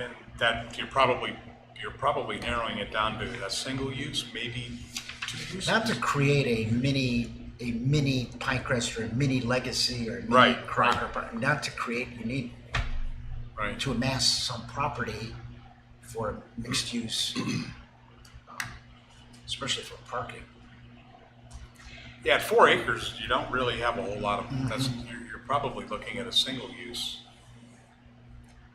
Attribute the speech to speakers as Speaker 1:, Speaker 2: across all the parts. Speaker 1: and that you're probably, you're probably narrowing it down to a single use, maybe two uses.
Speaker 2: Not to create a mini, a mini Pinecrest or a mini Legacy or a mini
Speaker 1: Right,
Speaker 2: Crocker, but not to create, you need
Speaker 1: Right,
Speaker 2: to amass some property for mixed use, um, especially for parking.
Speaker 1: yeah, at four acres, you don't really have a whole lot
Speaker 3: Mm-hmm.
Speaker 1: of, that's, you're, you're probably looking at a single use.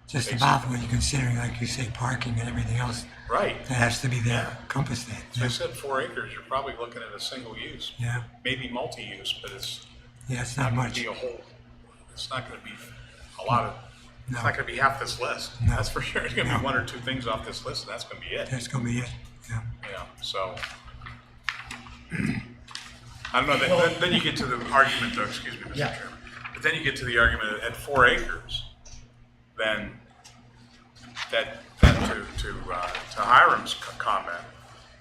Speaker 3: Just about when you're considering, like you say, parking and everything else,
Speaker 1: Right,
Speaker 3: that has to be there, compass that.
Speaker 1: I
Speaker 3: Yeah,
Speaker 1: said four acres, you're probably looking at a single use,
Speaker 3: yeah,
Speaker 1: maybe multi-use, but it's
Speaker 3: yeah, it's not
Speaker 1: gonna
Speaker 3: much.
Speaker 1: be a whole, it's not gonna be a lot of, it's
Speaker 3: No.
Speaker 1: not gonna be half this list,
Speaker 3: No.
Speaker 1: that's for sure. It's gonna be
Speaker 3: No.
Speaker 1: one or two things off this list, and that's gonna be it.
Speaker 3: That's gonna be it, yeah.
Speaker 1: Yeah, so. I don't know, then- then, then you get to the argument though, excuse me, Mr.
Speaker 2: Yeah.
Speaker 1: Chairman. But then you get to the argument that at four acres, then that, that to, to, uh, to Hiram's c- comment,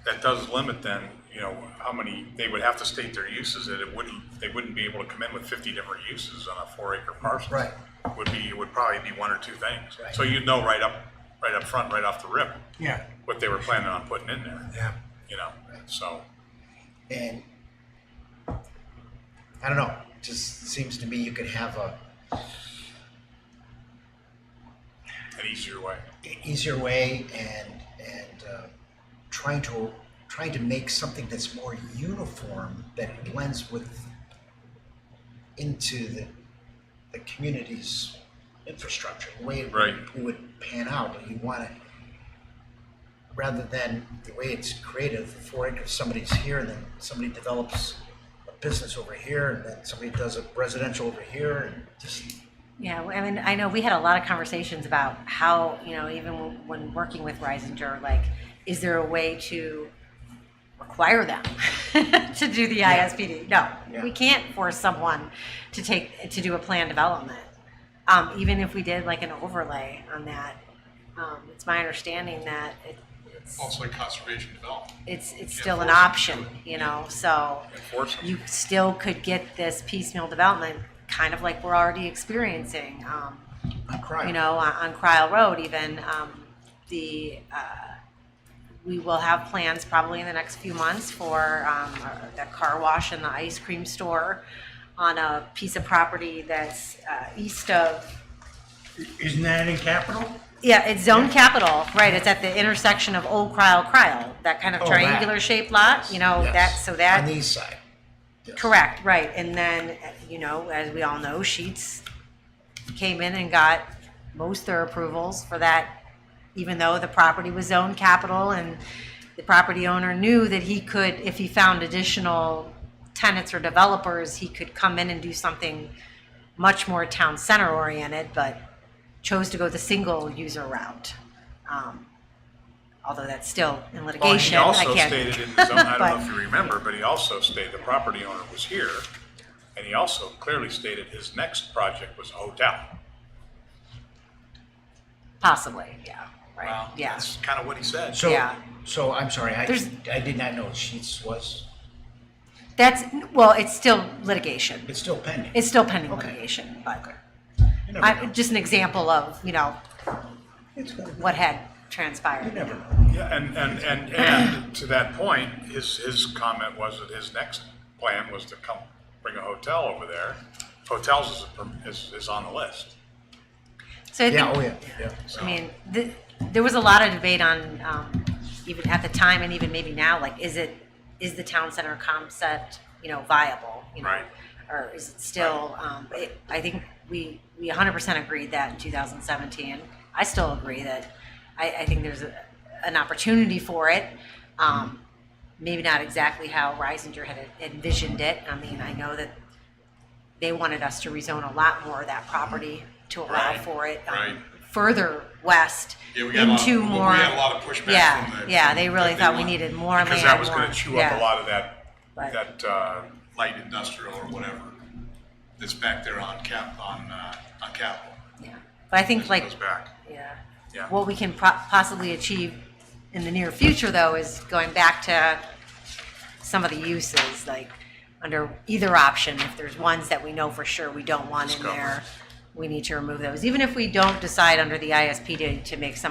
Speaker 1: that does limit then, you know, how many, they would have to state their uses that it wouldn't, they wouldn't be able to come in with fifty different uses on a four acre parcel.
Speaker 2: Right.
Speaker 1: Would be, would probably be one or two things. So you'd know right up, right up front, right off the rip,
Speaker 3: Yeah.
Speaker 1: what they were planning on putting in there
Speaker 3: Yeah,
Speaker 1: you know, so.
Speaker 2: And I don't know, just seems to me you could have a
Speaker 1: An easier way.
Speaker 2: easier way and and uh, trying to trying to make something that's more uniform that blends with into the the community's infrastructure the way it
Speaker 1: Right.
Speaker 2: would, would pan out you want it rather than the way it's created the four acres somebody's here and then somebody develops a business over here and then somebody does a residential over here and just
Speaker 4: Yeah, well, I mean, I know we had a lot of conversations about how, you know, even w- when working with Risinger, like, is there a way to require them to do the ISPD? No,
Speaker 2: Yeah.
Speaker 4: we can't force someone to take, to do a plan development. Um, even if we did like an overlay on that, um, it's my understanding that it, it's,
Speaker 5: also in conservation development.
Speaker 4: it's, it's still an
Speaker 5: force them to
Speaker 4: option, you know, so
Speaker 1: Enforce them.
Speaker 4: you still could get this piecemeal development, kind of like we're already experiencing. Um,
Speaker 2: I'm crying
Speaker 4: you know, on, on Cryle Road even, um, the, uh, we will have plans probably in the next few months for, um, uh, the car wash and the ice cream store on a piece of property that's, uh, east of,
Speaker 6: Isn't that in capital?
Speaker 4: yeah, it's zone capital, right, it's at the intersection of Old Cryle, Cryle, that kind of
Speaker 2: Oh, that.
Speaker 4: triangular shaped lot, you know,
Speaker 2: Yes.
Speaker 4: that, so
Speaker 2: on the
Speaker 4: that,
Speaker 2: east side
Speaker 4: correct, right, and then, uh, you know, as we all know, Sheets came in and got most their approvals for that, even though the property was zoned capital and the property owner knew that he could, if he found additional tenants or developers, he could come in and do something much more town center oriented, but chose to go the single user route. Um, Although that's still in
Speaker 1: Well,
Speaker 4: litigation,
Speaker 1: he
Speaker 4: I
Speaker 1: also
Speaker 4: can't.
Speaker 1: stated in his own, I don't know
Speaker 4: But-
Speaker 1: if you remember, but he also stated the property owner was here. And he also clearly stated his next project was a hotel.
Speaker 4: Possibly, yeah, right, yeah.
Speaker 1: That's kind of what he said.
Speaker 2: So,
Speaker 4: Yeah.
Speaker 2: so I'm sorry, I,
Speaker 4: There's-
Speaker 2: I did not know Sheets was,
Speaker 4: That's, well, it's still litigation.
Speaker 2: it's still pending.
Speaker 4: It's still pending
Speaker 2: Okay.
Speaker 4: litigation, but
Speaker 2: You never
Speaker 4: I,
Speaker 2: know.
Speaker 4: just an example of, you know,
Speaker 2: It's gonna be-
Speaker 4: what had
Speaker 2: You
Speaker 4: transpired.
Speaker 2: never know.
Speaker 1: Yeah, and, and, and, and to that point, his, his comment was that his next plan was to come, bring a hotel over there. Hotels is, a- is, is on the list.
Speaker 4: So I
Speaker 2: Yeah, oh
Speaker 4: think,
Speaker 2: yeah, yeah.
Speaker 4: I mean, th- there was a lot of debate on, um, even at the time and even maybe now, like, is it, is the town center concept, you know, viable? you know,
Speaker 1: Right.
Speaker 4: Or is it still, um, it, I think we, we hundred percent agreed that in two thousand seventeen. I still agree that, I, I think there's a, an opportunity for it. Um, maybe not exactly how Reisinger had envisioned it. I mean, I know that they wanted us to rezone a lot more of that property to allow
Speaker 5: Right,
Speaker 4: for it um,
Speaker 5: right.
Speaker 4: further west
Speaker 5: Yeah, we got a lot of-
Speaker 4: into
Speaker 5: we
Speaker 4: more.
Speaker 5: had a lot of pushback
Speaker 4: Yeah,
Speaker 5: from the-
Speaker 4: yeah,
Speaker 5: from
Speaker 4: they
Speaker 5: the-
Speaker 4: really
Speaker 5: that they
Speaker 4: thought we
Speaker 5: want-
Speaker 4: needed more land.
Speaker 1: Because that was going
Speaker 4: more-
Speaker 1: to chew up a
Speaker 4: yeah.
Speaker 1: lot of that,
Speaker 4: Right.
Speaker 1: that, uh,
Speaker 5: light industrial or whatever that's back there on cap, on, uh, on Capitol.
Speaker 4: Yeah, but I think
Speaker 5: As it
Speaker 4: like
Speaker 5: Goes back.
Speaker 4: Yeah.
Speaker 1: Yeah.
Speaker 4: What we can pro- possibly achieve in the near future, though, is going back to some of the uses, like under either option, if there's ones that we know for sure we don't want in
Speaker 1: Discover.
Speaker 4: there, we need to remove those. Even if we don't decide under the ISP to, to make some